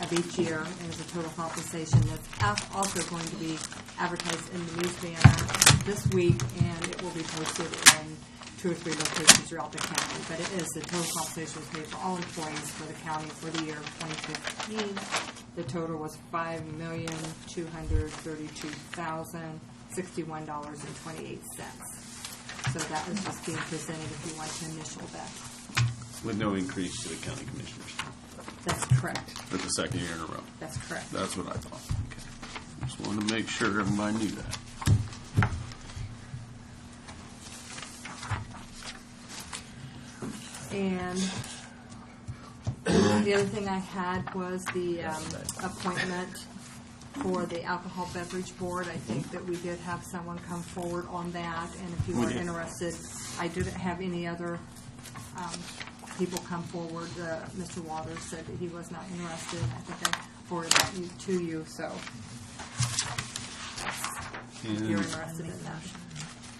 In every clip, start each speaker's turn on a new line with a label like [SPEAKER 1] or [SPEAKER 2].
[SPEAKER 1] of each year, and as a total compensation that's al- also going to be advertised in the news banner this week, and it will be posted in two or three locations throughout the county. But it is, the total compensation is paid for all employees for the county for the year of 2015. The total was $5,232,061.28. So that is just being presented if you want to initial that.
[SPEAKER 2] With no increase to the county commissioners
[SPEAKER 1] That's correct.
[SPEAKER 2] for the second year in a row.
[SPEAKER 1] That's correct.
[SPEAKER 2] That's what I thought. Okay. Just wanted to make sure everybody knew that.
[SPEAKER 1] And the other thing I had was the um, appointment for the Alcohol Beverage Board. I think that we did have someone come forward on that, and if you
[SPEAKER 2] We
[SPEAKER 1] are
[SPEAKER 2] did.
[SPEAKER 1] interested, I didn't have any other um, people come forward. Uh, Mr. Waters said that he was not interested. I think I forwarded that you- to you, so if you're
[SPEAKER 2] And
[SPEAKER 1] interested in that.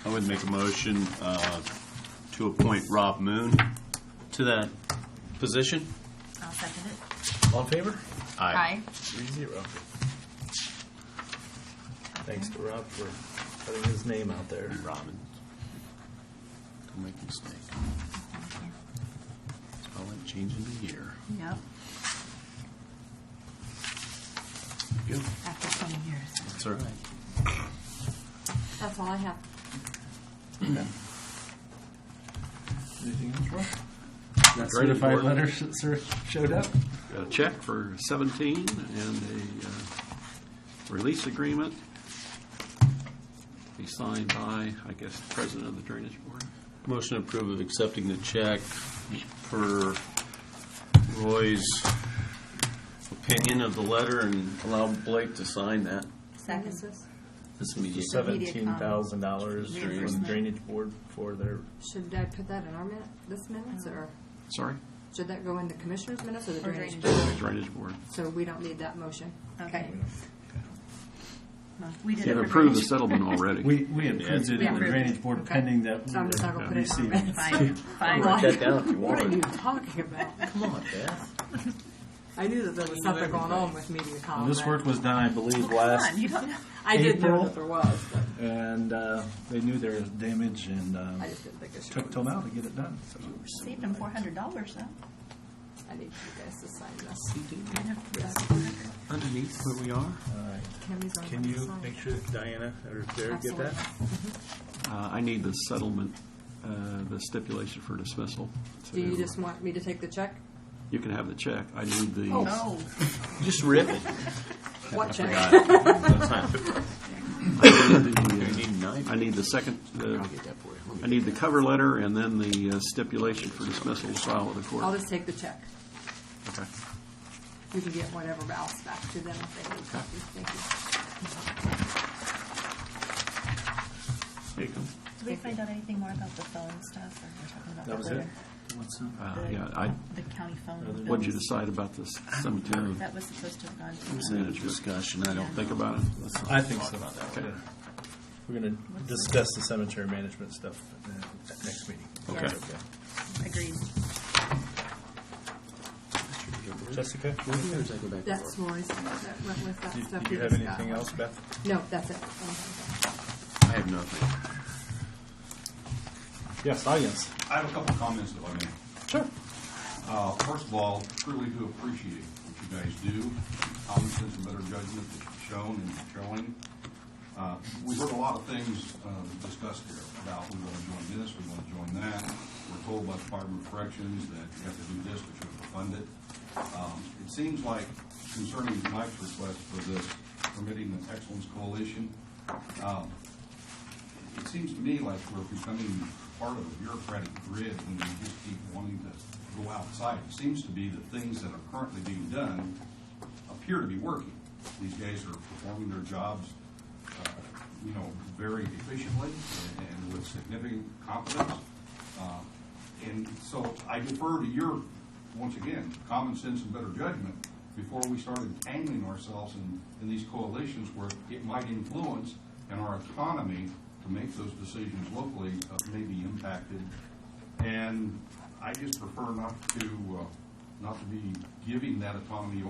[SPEAKER 2] I would make a motion uh, to appoint Rob Moon to that position.
[SPEAKER 3] I'll second it.
[SPEAKER 4] All in favor?
[SPEAKER 3] Aye.
[SPEAKER 4] Three zero. Thanks to Rob for putting his name out there.
[SPEAKER 2] Robin. Don't make a mistake. It's all like changing the year.
[SPEAKER 3] Yep,
[SPEAKER 2] Good.
[SPEAKER 3] after 20 years.
[SPEAKER 2] That's all right.
[SPEAKER 1] That's all I have.
[SPEAKER 4] Anything else, Rob? That
[SPEAKER 2] Great
[SPEAKER 4] certified
[SPEAKER 2] report.
[SPEAKER 4] letter sh- sir- showed up?
[SPEAKER 5] a check for 17 and a uh, release agreement be signed by, I guess, the president of the Drainage Board.
[SPEAKER 2] Motion approved of accepting the check for Roy's opinion of the letter and allow Blake to sign that.
[SPEAKER 1] Witnesses?
[SPEAKER 3] Second.
[SPEAKER 4] This is for
[SPEAKER 3] Immediate
[SPEAKER 4] seventeen thousand dollars from
[SPEAKER 3] Reimbursement.
[SPEAKER 4] the drainage board for their,
[SPEAKER 1] Should I put that in our minute, this minutes, or
[SPEAKER 5] Sorry?
[SPEAKER 1] should that go in the commissioner's minutes or the
[SPEAKER 3] Or
[SPEAKER 1] drainage?
[SPEAKER 3] drainage.
[SPEAKER 5] Drainage Board.
[SPEAKER 1] So we don't need that motion.
[SPEAKER 3] Okay. We did
[SPEAKER 5] They've
[SPEAKER 3] approve
[SPEAKER 5] approved the
[SPEAKER 3] it.
[SPEAKER 5] settlement already.
[SPEAKER 4] we, we approved it
[SPEAKER 3] We
[SPEAKER 4] in the
[SPEAKER 3] approved it.
[SPEAKER 4] drainage board
[SPEAKER 1] Okay.
[SPEAKER 4] pending that we
[SPEAKER 1] So I'm just not gonna
[SPEAKER 4] were
[SPEAKER 1] put it in our
[SPEAKER 4] receiving.
[SPEAKER 1] minutes. Why?
[SPEAKER 3] Fine, fine.
[SPEAKER 4] Write that down if you
[SPEAKER 1] What are
[SPEAKER 4] want.
[SPEAKER 1] you talking about?
[SPEAKER 4] Come on, Beth.
[SPEAKER 1] I knew that there was something going on with media
[SPEAKER 4] Well,
[SPEAKER 1] comment.
[SPEAKER 4] This work was done, I believe,
[SPEAKER 3] Come
[SPEAKER 4] last
[SPEAKER 3] on, you don't know.
[SPEAKER 1] I did know
[SPEAKER 4] April.
[SPEAKER 1] that there was, but
[SPEAKER 4] and uh, they knew there was damage and um,
[SPEAKER 1] I just didn't think I should.
[SPEAKER 4] took till now to get it done. So.
[SPEAKER 3] Saved him $400 though.
[SPEAKER 1] I need you guys to sign this.
[SPEAKER 5] Underneath where we are,
[SPEAKER 4] All right.
[SPEAKER 1] Tammy's on
[SPEAKER 6] Can
[SPEAKER 1] the
[SPEAKER 6] you
[SPEAKER 1] side.
[SPEAKER 6] make sure that Diana or Derek get that?
[SPEAKER 1] Absolutely.
[SPEAKER 5] uh, I need the settlement, uh, the stipulation for dismissal.
[SPEAKER 1] Do you
[SPEAKER 5] So
[SPEAKER 1] just want me to take the check?
[SPEAKER 5] You can have the check. I need
[SPEAKER 3] Oh.
[SPEAKER 5] the,
[SPEAKER 1] Oh.
[SPEAKER 3] No,
[SPEAKER 2] Just rip it.
[SPEAKER 1] What check?
[SPEAKER 5] I need
[SPEAKER 2] You
[SPEAKER 5] the,
[SPEAKER 2] need a knife?
[SPEAKER 5] uh, I need the second, uh,
[SPEAKER 2] I'll get that for you.
[SPEAKER 5] I need the cover letter and then the uh, stipulation for dismissal to file with the
[SPEAKER 1] I'll
[SPEAKER 5] court.
[SPEAKER 1] just take the check.
[SPEAKER 5] Okay.
[SPEAKER 1] You can get whatever else back to them if they need copies. Thank you.
[SPEAKER 5] There you go.
[SPEAKER 3] did we find out anything more about the phone stuff or we're talking about
[SPEAKER 4] That was
[SPEAKER 3] that
[SPEAKER 4] it.
[SPEAKER 3] later?
[SPEAKER 4] What's up?
[SPEAKER 5] Uh,
[SPEAKER 3] The-
[SPEAKER 5] Yeah, I,
[SPEAKER 3] The county phone.
[SPEAKER 5] What'd you
[SPEAKER 3] bills.
[SPEAKER 5] decide about this cemetery?
[SPEAKER 3] That was supposed to have gone to.
[SPEAKER 2] It's not a discussion, I don't think.
[SPEAKER 5] Think about it.
[SPEAKER 4] I think so.
[SPEAKER 5] Okay.
[SPEAKER 4] We're going to discuss the cemetery management stuff uh, at next meeting.
[SPEAKER 3] Okay. Agreed.
[SPEAKER 4] Jessica,
[SPEAKER 1] That's Roy's, that went with that stuff.
[SPEAKER 4] did
[SPEAKER 1] we
[SPEAKER 4] you have
[SPEAKER 1] discussed.
[SPEAKER 4] anything else, Beth?
[SPEAKER 1] No, that's it. Okay.
[SPEAKER 2] I have nothing.
[SPEAKER 4] Yes, audience.
[SPEAKER 7] I have a couple of comments if I may.
[SPEAKER 4] Sure.
[SPEAKER 7] Uh, First of all, truly do appreciate what you guys do, common sense and better judgment that you've shown and showing. Uh, We heard a lot of things uh, discussed here about we want to join this, we want to join that. We're told by the Department of Corrections that you have to do this, but you have to fund it. Um, It seems like concerning Mike's request for this permitting the excellence coalition, um, it seems to me like we're becoming part of a bureaucratic grid when we just keep wanting to go outside. It seems to be that things that are currently being done appear to be working. These guys are performing their jobs, uh, you know, very efficiently and with significant competence. Uh, And so I defer to your, once again, common sense and better judgment before we start entangling ourselves in, in these coalitions where it might influence and our autonomy to make those decisions locally uh, may be impacted. And I just prefer not to, uh, not to be giving that autonomy